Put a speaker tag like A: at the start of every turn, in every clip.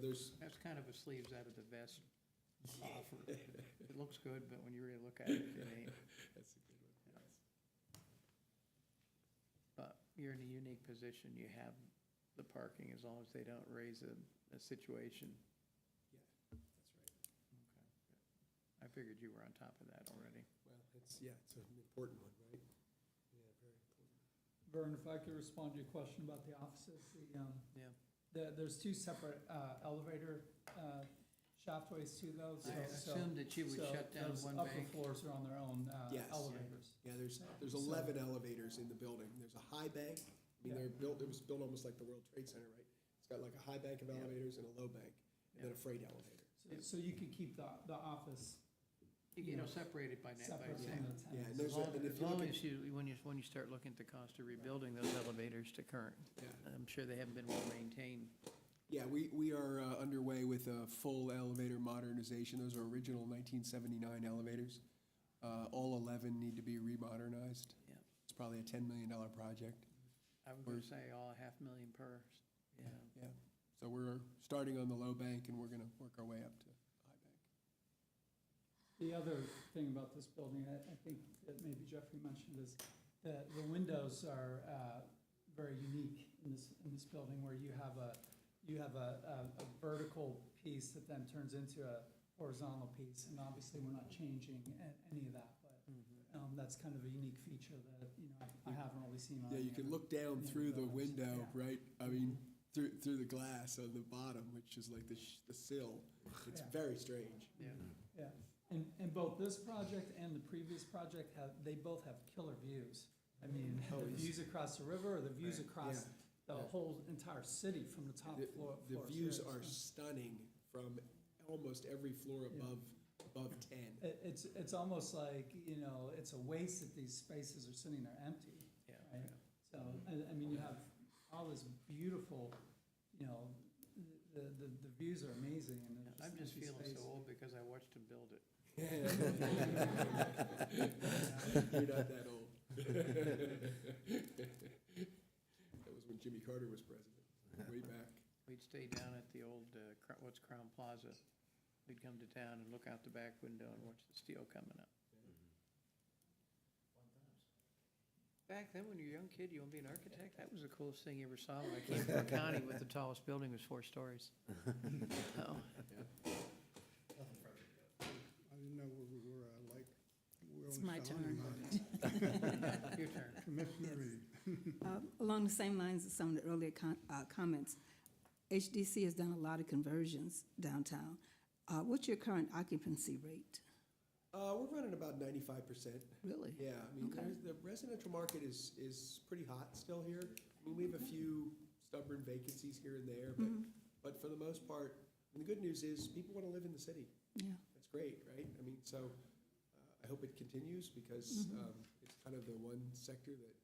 A: there's,
B: That's kind of a sleeves out of the vest offer. It looks good, but when you really look at it, it ain't.
A: that's a good one. yes.
B: But you're in a unique position. You have the parking as long as they don't raise a, a situation.
A: Yeah, that's right.
B: Okay. I figured you were on top of that already.
A: Well, it's, yeah, it's an important one, right? Yeah, very important.
C: Vern, if I could respond to your question about the offices, the, um,
B: Yeah.
C: the, there's two separate, uh, elevator, uh, shaftways too though, so.
B: I assumed that you would
C: so
B: shut down
C: those
B: one
C: Upper
B: bank.
C: floors are on their own, uh,
A: Yes.
C: elevators.
A: Yeah, there's, there's
C: So-
A: eleven elevators in the building. There's a high bank. I mean, they're
C: Yeah.
A: built, it was built almost like the World Trade Center, right? It's got like a high bank of
B: Yeah.
A: elevators and a low bank, and then a
B: Yeah.
A: freight elevator.
C: So, so you could keep the, the office
B: You you know, separated by net, by
C: separate
B: saying.
C: from the
A: Yeah, and
C: tenants.
A: there's,
B: As
A: a-
B: long
A: and if
B: as
A: you look at,
B: long as you, when you, when you start looking at the cost of rebuilding those elevators to current,
A: Yeah.
B: I'm sure they haven't been well maintained.
A: yeah, we, we are uh, underway with a full elevator modernization. Those are original nineteen seventy-nine elevators. Uh, all eleven need to be remodernized.
B: Yeah.
A: It's probably a ten million dollar project.
B: I was
A: Mm.
B: gonna say all half million per, yeah.
A: Yeah, so we're starting on the low bank and we're gonna work our way up to high bank.
C: The other thing about this building, I, I think that maybe Jeffrey mentioned is that the windows are, uh, very unique in this, in this building where you have a, you have a, a, a vertical piece that then turns into a horizontal piece. And obviously, we're not changing a- any of that, but,
A: Mm-hmm.
C: um, that's kind of a unique feature that, you know, I I haven't really seen on.
A: Yeah, you
C: any
A: can
C: other-
A: look down
C: Yeah,
A: through the
C: those,
A: window,
C: yeah.
A: right? I mean, through, through the glass on the bottom, which is like the, sh- the sill. It's
C: Yeah.
A: very strange.
B: Yeah.
C: Yeah, and, and both this project and the previous project have, they both have killer views. I mean,
A: Oh,
C: the
A: yes.
C: views across the river, or the views
B: Right,
C: across
A: yeah,
C: the
A: yeah.
C: whole entire city from the top
A: The,
C: floor.
A: the
C: floors.
A: views
C: Yeah,
A: are
C: so-
A: stunning from almost every floor
C: Yeah.
A: above, above ten.
C: It, it's, it's almost like, you know, it's a waste that these spaces are sitting there empty.
B: Yeah.
C: right? So, I, I mean, you have all this beautiful, you know, the, the, the views are amazing and there's
B: I'm just
C: empty
B: feeling so
C: space.
B: old because I watched him build it.
A: You're not that old. That was when Jimmy Carter was president, way back.
B: We'd stay down at the old, uh, Cro- what's Crown Plaza. We'd come to town and look out the back window and watch the steel coming up. Back then, when you were a young kid, you want to be an architect? That was the coolest thing you ever saw. When I came from a county with the tallest building was four stories. Oh,
D: I didn't know where we were, I like. we're
E: It's
D: only
E: my
D: selling
E: turn.
D: mine.
B: Your turn.
D: Commissioner Reed.
E: Uh, Along the same lines as some of the earlier con- uh, comments, HDC has done a lot of conversions downtown. Uh, What's your current occupancy rate?
A: Uh, we're running about ninety-five percent.
E: Really?
A: Yeah, I mean,
E: Okay.
A: there's, the residential market is, is pretty hot still here. I mean, we have a few stubborn vacancies here and there,
E: Mm-hmm.
A: but, but for the most part, and the good news is, people wanna live in the city.
E: Yeah,
A: That's great, right? I mean, so, uh, I hope it continues, because,
E: Mm-hmm.
A: um, it's kind of the one sector that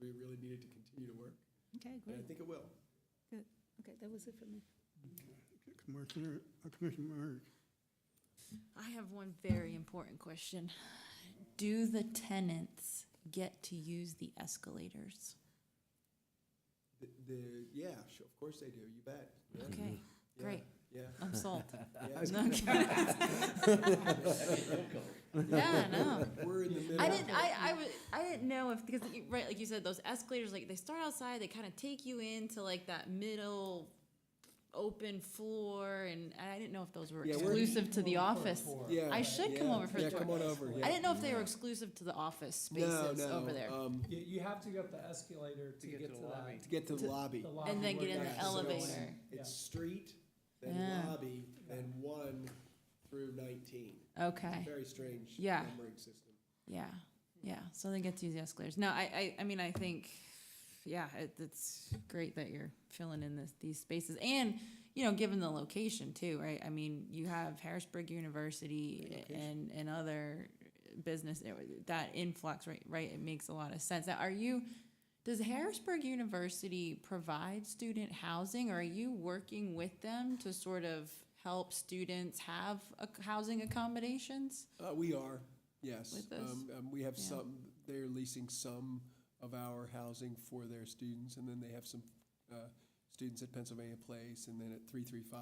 A: we really needed to continue to work,
E: okay,
A: and I think
E: great,
A: it will.
E: good. Okay, that was it for me.
D: Uh, Commissioner, uh, Commissioner Myers.
F: I have one very important question. Do the tenants get to use the escalators?
A: The, the, yeah, sure, of course they do, you bet. Yeah,
F: Okay,
A: yeah,
F: great.
A: Yeah,
F: I'm sold.
A: yeah.
F: No, I'm kidding. Yeah, no.
A: We're in the middle.
F: I didn't. I, I was. I didn't know if because you- right, like you said, those escalators like they start outside. They kind of take you into like that middle open floor, and I didn't know if those were
A: Yeah, we're-
F: exclusive to the
C: Come over for a
F: office.
C: tour.
A: Yeah,
F: I should come
A: yeah,
F: over for a
A: yeah,
F: tour.
A: come on over, yeah.
F: I didn't know if they were exclusive to the office
A: No,
F: spaces
A: no,
F: over there.
A: um,
C: You, you have to go up the escalator to get to
B: the lobby.
C: that.
A: to get to the lobby.
C: the lobby
F: And then
C: where
F: get in
C: you
F: the
C: have to go in.
F: elevator.
C: Yeah.
A: It's street, then
F: Yeah.
A: lobby, then one through nineteen.
F: Okay.
A: Very strange
F: Yeah.
A: numbering system.
F: Yeah, yeah. So they get to use the escalators. No, I, I, I mean, I think, yeah, it, it's great that you're filling in this, these spaces, and you know, given the location too, right? I mean, you have Harrisburg University and and other business eh, that influx, right? Right, it makes a lot of sense. Now, are you? Does Harrisburg University provide student housing, or are you working with them to sort of help students have a, housing accommodations?
A: Uh, we are, yes.
F: With us?
A: Um, um, we have
F: Yeah.
A: some, they're leasing some of our housing for their students, and then they have some, uh, students at Pennsylvania Place, and then at three three five.